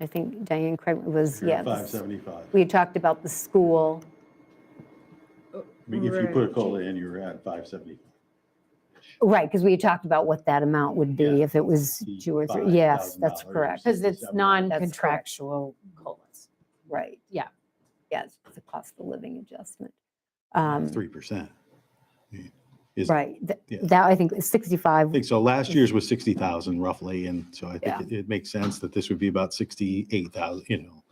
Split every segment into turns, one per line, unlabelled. I think Diane Craig was, yeah. this-
575.
We had talked about the school,
I mean, if you put a COLA in, you're at 575.
right, because we had talked about what that amount would be
Yeah,
if it was two or three. Yes, that's
$5,000
correct,
or
Because it's
Seven.
non-contractual COLAs.
right.
Yeah.
Yes, it's a cost of living adjustment. Um,
3%. is-
Right, th-
yeah.
that I think is
I
65,
think so. Last year's was 60,000 roughly, and so I
Yeah.
think it- it makes sense that this would be about 68,000, you know.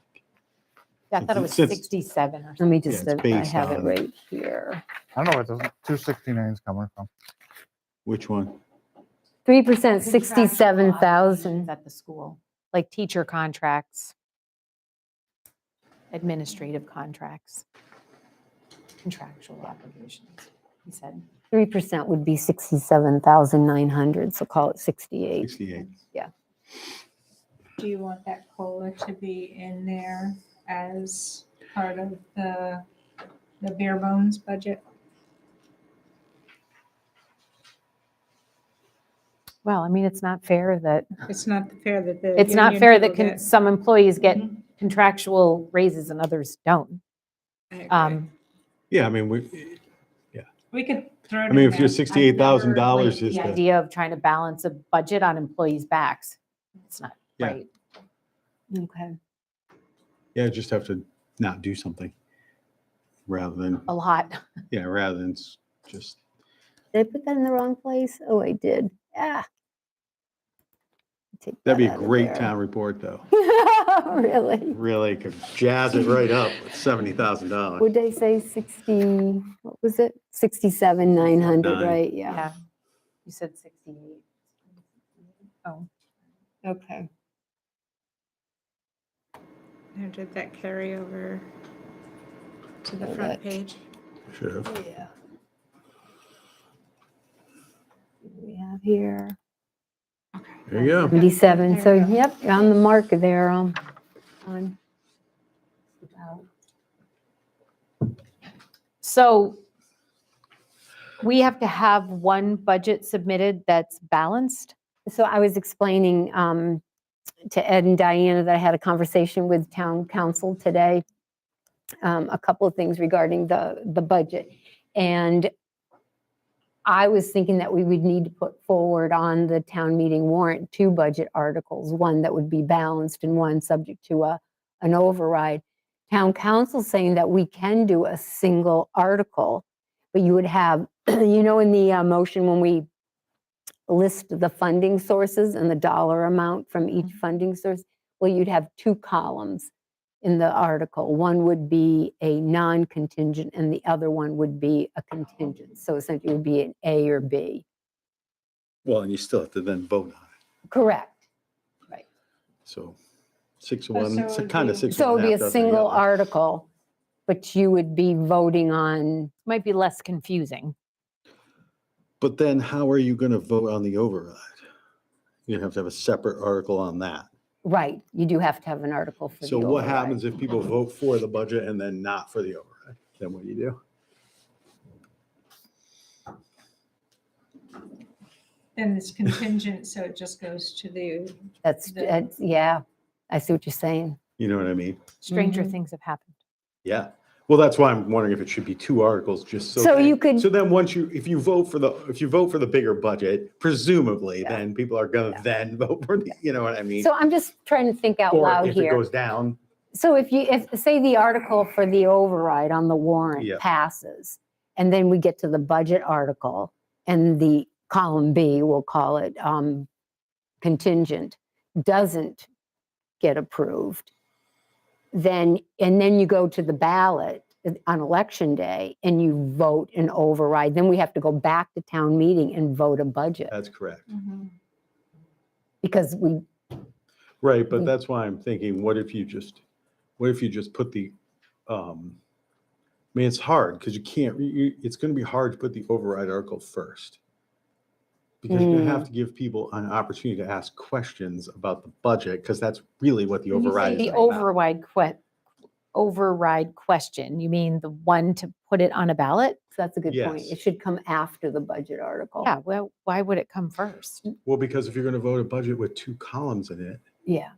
I thought it was
Since-
67
Mm,
or
let
something.
me just,
it's
uh, I
based
have it
on-
right here.
I don't know where the 269 is coming from.
Which one?
3%,
Contractual
67,000.
obligations At the school, like teacher contracts, administrative contracts, contractual obligations, he said.
3% would be 67,900, so call it 68.
68.
Do you want that COLA to be in there as part of the, the bare bones budget?
Well, I mean, it's not fair that,
It's not fair that the.
it's not
union
fair
people
that con-
get-
some employees get
Mhm.
contractual raises and others don't.
I agree.
Um,
Yeah, I mean, we,
We could throw. it
I
in
mean, if
there.
your
I've never, like,
$68,000 is
The
the,
idea of trying to balance a budget on employees' backs, it's not
Yeah.
right.
Okay.
yeah, just have to not do something rather than,
A lot.
yeah, rather than s- just,
Did I put that in the wrong place? Oh, I did. Ah. Take
that'd be
that
a
out of
great
there.
town report, though.
Really?
Really could jazz it right up with $70,000.
Would they say 60, what was it? 67, 900,
Nine.
right? Yeah.
You said 68. Oh,
Okay.
Now, Did that carry over to the
Hold
front
it.
page?
Should have.
Yeah. What do We have here
Okay.
There you go.
77, so
There we go.
yep, you're on the mark there, um, on. about-
So we have to have one budget submitted that's balanced?
So I was explaining um, to Ed and Diana that I had a conversation with town council today, um, a couple of things regarding the, the budget. And I was thinking that we would need to put forward on the town meeting warrant two budget articles, one that would be balanced and one subject to a, an override. Town council saying that we can do a single article, but you would have, you know, in the uh, motion when we list the funding sources and the dollar amount from
Mm-hmm.
each funding source, well, you'd have two columns in the article. One would be a non-contingent and the other one would be a contingent. So essentially it would be an A or B.
Well, and you still have to then vote on it.
Correct.
So six of
Oh,
one,
so
it's
it would
kind of
be-
six. of
So it
one,
would be
half
a
dozen of the
single
other.
article, but you would be voting on,
Might be less confusing.
But then how are you going to vote on the override? You'd have to have a separate article on that.
right, you do have to have an article for the
So what
override.
happens if people vote for the budget and then not for the override? Then what do you do?
Then it's contingent, so it just goes to the,
That's,
the-
that's- yeah, I see what you're saying.
You know what I mean?
Stranger
Mhm.
things have happened.
Yeah. Well, that's why I'm wondering if it should be two articles, just so.
So
that-
you could-
So then once you, if you vote for the, if you vote for the bigger budget, presumably then people are going to then vote for, the. you know what I mean?
So I'm just trying to think out
Or
loud
If it
here.
goes down,
So if you, if, say the article for the override on the warrant
Yeah.
passes, and then we get to the budget article, and the column B, we'll call it um, contingent, doesn't get approved, then, and then you go to the ballot on election day, and you vote an override, then we have to go back to town meeting and vote a budget,
that's correct.
Mm-hmm.
because we,
Right, but
Mm.
that's why I'm thinking, what if you just, what if you just put the, um, I mean, it's hard because you can't, you- you, it's gonna be hard to put the override article first. Because you're gonna
Mm.
have to give people an opportunity to ask questions about the budget, because that's really what the
When you say
override is
The
about.
override que, override question, you mean the one to put it on a ballot?
so that's a good point.
Yes.
It should come after the budget article.
Yeah, well, why would it come first?
Well, because if you're gonna vote a budget with two columns in it,
Yeah.